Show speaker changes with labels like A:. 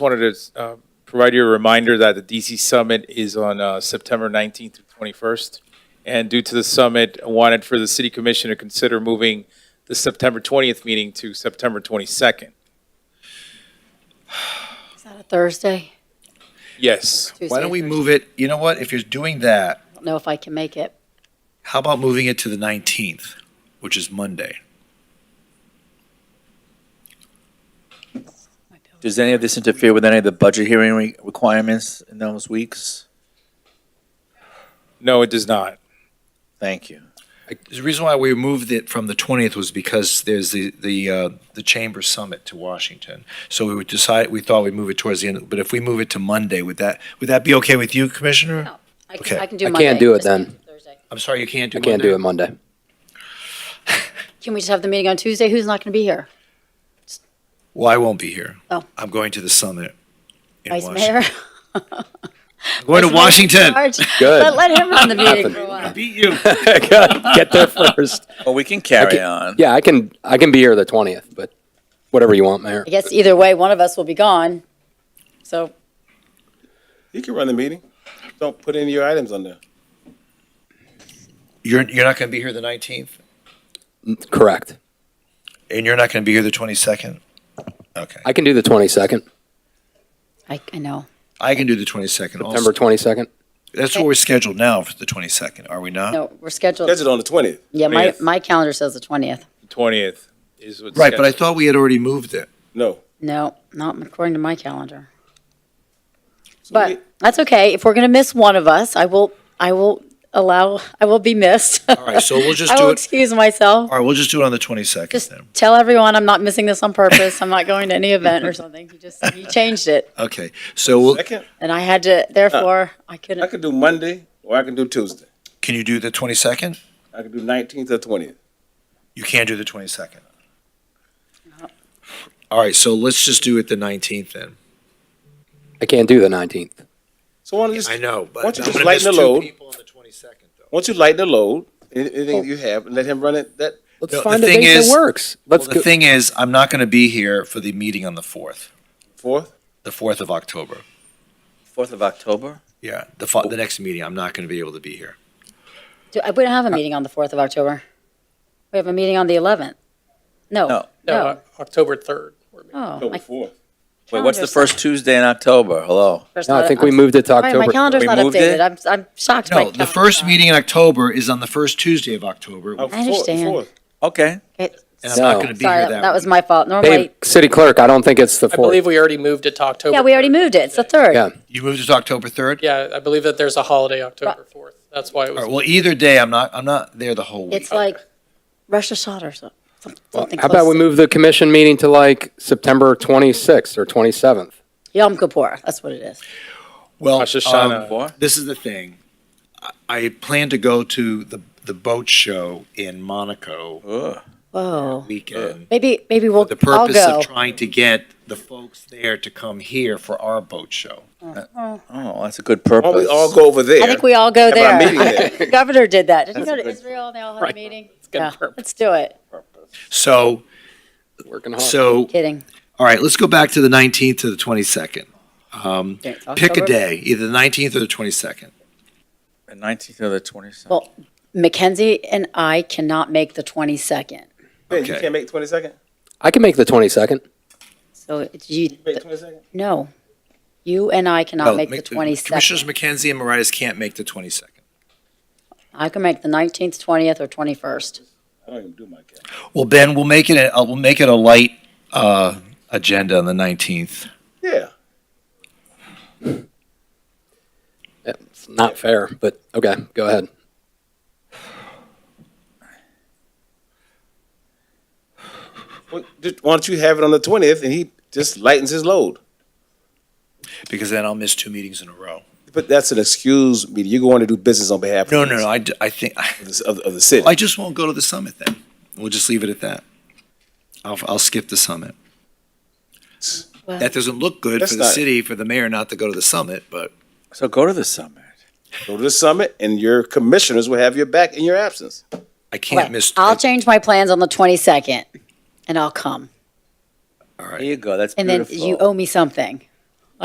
A: wanted to uh, provide you a reminder that the DC Summit is on uh, September 19th through 21st. And due to the summit, I wanted for the City Commission to consider moving the September 20th meeting to September 22nd.
B: Is that a Thursday?
A: Yes,
B: Tuesday,
C: Why don't we
B: Thursday.
C: move it, you know what, if you're doing that,
B: I don't know if I can make it.
C: how about moving it to the 19th, which is Monday?
D: Does any of this interfere with any of the budget hearing re- requirements in those weeks?
A: no, it does not.
D: Thank you.
C: I- The reason why we moved it from the 20th was because there's the, the, uh, the Chamber Summit to Washington. So we would decide, we thought we'd move it towards the end, but if we move it to Monday, would that, would that be okay with you, Commissioner?
B: No. I
C: Okay.
B: can, I can do
E: I
B: Monday.
E: can't do it
B: Just can't
E: then.
B: do Thursday.
C: I'm sorry, you can't do
E: I
C: Monday?
E: can't do it Monday.
B: Can we just have the meeting on Tuesday? Who's not going to be here?
C: Well, I won't be here.
B: Oh.
C: I'm going to the summit. in
B: Vice
C: Washington.
B: Mayor?
C: I'm Going
B: Vice Mayor
C: to
B: in
C: Washington.
B: charge?
E: Good.
B: Let, let him run the meeting for a while.
C: Beat you.
E: Get there first.
D: Well, we can carry
E: Okay.
D: on.
E: Yeah, I can, I can be here the 20th, but whatever you want, Mayor.
B: I guess either way, one of us will be gone. So
F: You can run the meeting. Don't put any of your items on there.
C: You're, you're not going to be here the 19th?
E: Correct.
C: And you're not going to be here the 22nd? Okay.
E: I can do the 22nd,
B: I, I know.
C: I can do the 22nd
E: September
C: also.
E: 22nd.
C: That's what we're scheduled now for the 22nd, are we not?
B: No, we're scheduled.
F: That's it on the twentieth.
B: Yeah, my,
A: 20th.
B: my calendar says the 20th.
A: The 20th is what's.
C: Right, but I
A: scheduled.
C: thought we had already moved it.
F: No.
B: No, not according to my calendar.
F: So we-
B: But that's okay. If we're going to miss one of us, I will, I will allow, I will be missed.
C: All right, so we'll just
B: I
C: do
B: will
C: it.
B: excuse myself.
C: All right, we'll just do it on the 22nd
B: Just
C: then.
B: tell everyone I'm not missing this on purpose. I'm not going to any event or something. You just you changed it,
C: Okay, so we'll-
F: Second,
B: and I had to. Therefore, I
F: I
B: couldn't.
F: could do Monday or I can do Tuesday.
C: can you do the 22nd?
F: I could do nineteenth or twentieth.
C: You can do the 22nd. All right, so let's just do it the 19th then.
E: I can't do the 19th.
F: So why don't you just,
C: I know, but.
F: Why don't you
C: I'm
F: just
C: gonna
F: lighten
C: miss
F: the
C: two
F: load?
C: people on the 22nd, though.
F: once you lighten the load, any- anything you have, and let him run it. That
E: Let's
C: No, the
E: find a
C: thing
E: date
C: is-
E: that works.
C: Well,
E: Let's
C: the
E: go.
C: thing is, I'm not going to be here for the meeting on the 4th,
F: fourth,
C: the 4th of October.
D: Fourth of October?
C: Yeah, the, fo- the next meeting, I'm not going to be able to be here.
B: Do, I- we don't have a meeting on the fourth of October. We have a meeting on the eleventh. No.
D: No.
B: No.
G: October 3rd. we're meeting.
B: Oh,
F: October
B: my
F: fourth.
D: Wait, what's the
B: calendar's not-
D: first Tuesday in October? Hello?
B: first
E: No, I
B: not-
E: think we
B: I'm-
E: moved it to
B: Right, my
E: October.
B: calendar's
D: We
B: not
D: moved
B: updated.
D: it?
B: I'm I'm shocked. my
C: No, the
B: calendar's
C: first
B: not.
C: meeting in October is on the first Tuesday of October,
F: Oh,
C: and
F: fourth-
B: understand.
F: fourth.
D: Okay.
B: Okay,
C: I'm not
E: No.
C: going to be
B: Sorry, that
C: here that
B: that was my fault.
E: Hey,
B: Normally,
E: City Clerk, I don't think it's the
G: I
E: 4th.
G: believe we already moved it to October.
B: yeah, we already
G: 3rd.
B: moved it. It's the third.
E: Yeah.
C: You moved it to October 3rd?
G: Yeah, I believe that there's a holiday October 4th. That's why it
C: All right,
G: was,
C: well, either day, I'm not, I'm not there the whole week.
B: It's like Russia shot or so- some- something.
E: How about
B: close
E: we
B: to-
E: move the commission meeting to like September 26th or 27th?
B: Yom Kippur? That's what it is.
C: Well,
A: Rosh Hashanah.
C: um,
D: Four?
C: this is the thing. I- I plan to go to the, the boat show in Monaco
D: Ugh.
B: Whoa.
C: weekend.
B: Maybe maybe we'll
C: The
B: all
C: purpose
B: Oh. go.
C: of trying to get the folks there to come here for our boat show.
D: Oh, that's a good
F: Why don't we
D: purpose.
F: all go over there?
B: I think we all go
F: Have
B: there.
F: our meeting
B: I
F: there.
B: think the governor did that. Did he go
F: That's a
B: to
F: good-
B: Israel and they all had a
G: Right.
B: meeting?
G: good
B: Yeah,
G: purpose.
B: let's do it.
C: So,
B: Uh-huh.
E: Working hard.
C: so,
B: Kidding.
C: all right, let's go back to the 19th to the 22nd. Um,
B: Okay, it's
C: Pick a
B: October.
C: day, either the 19th or the 22nd.
D: The 19th or the 27th?
B: Well, Mackenzie and I cannot make the 22nd.
F: Ben, you
C: Okay.
F: can't make twenty second.
E: I can make the 22nd.
B: So it's you,
F: Make twenty second.
B: no, you and I cannot
C: No,
B: make the
C: Commissioners
B: 22nd.
C: McKenzie and Moritas can't make the 22nd.
B: I can make the 19th, 20th, or 21st.
F: I don't even do my calendar.
C: Well, Ben, we'll make it, a- uh, we'll make it a light uh, agenda on the 19th.
F: Yeah.
E: It's not fair, but okay, go ahead.
F: Well, just- Why don't you have it on the twentieth and he just lightens his load?
C: because then I'll miss two meetings in a row.
F: But that's an excuse me. You're going to do business on behalf of
C: No,
F: the-
C: no, no. I, d- I think
F: of the, of, of the city.
C: I just won't go to the summit then. We'll just leave it at that. I'll, I'll skip the summit. That doesn't look good
F: That's
C: for the
F: not-
C: city, for the mayor not to go to the summit, but
D: So go to the summit.
F: Go to the summit, and your commissioners will have your back in your absence.
C: I can't
B: Okay,
C: miss.
B: I'll change my plans on the 22nd and I'll come.
C: All
D: There
C: right.
D: you go. That's
B: And then you
D: beautiful.
B: owe me something.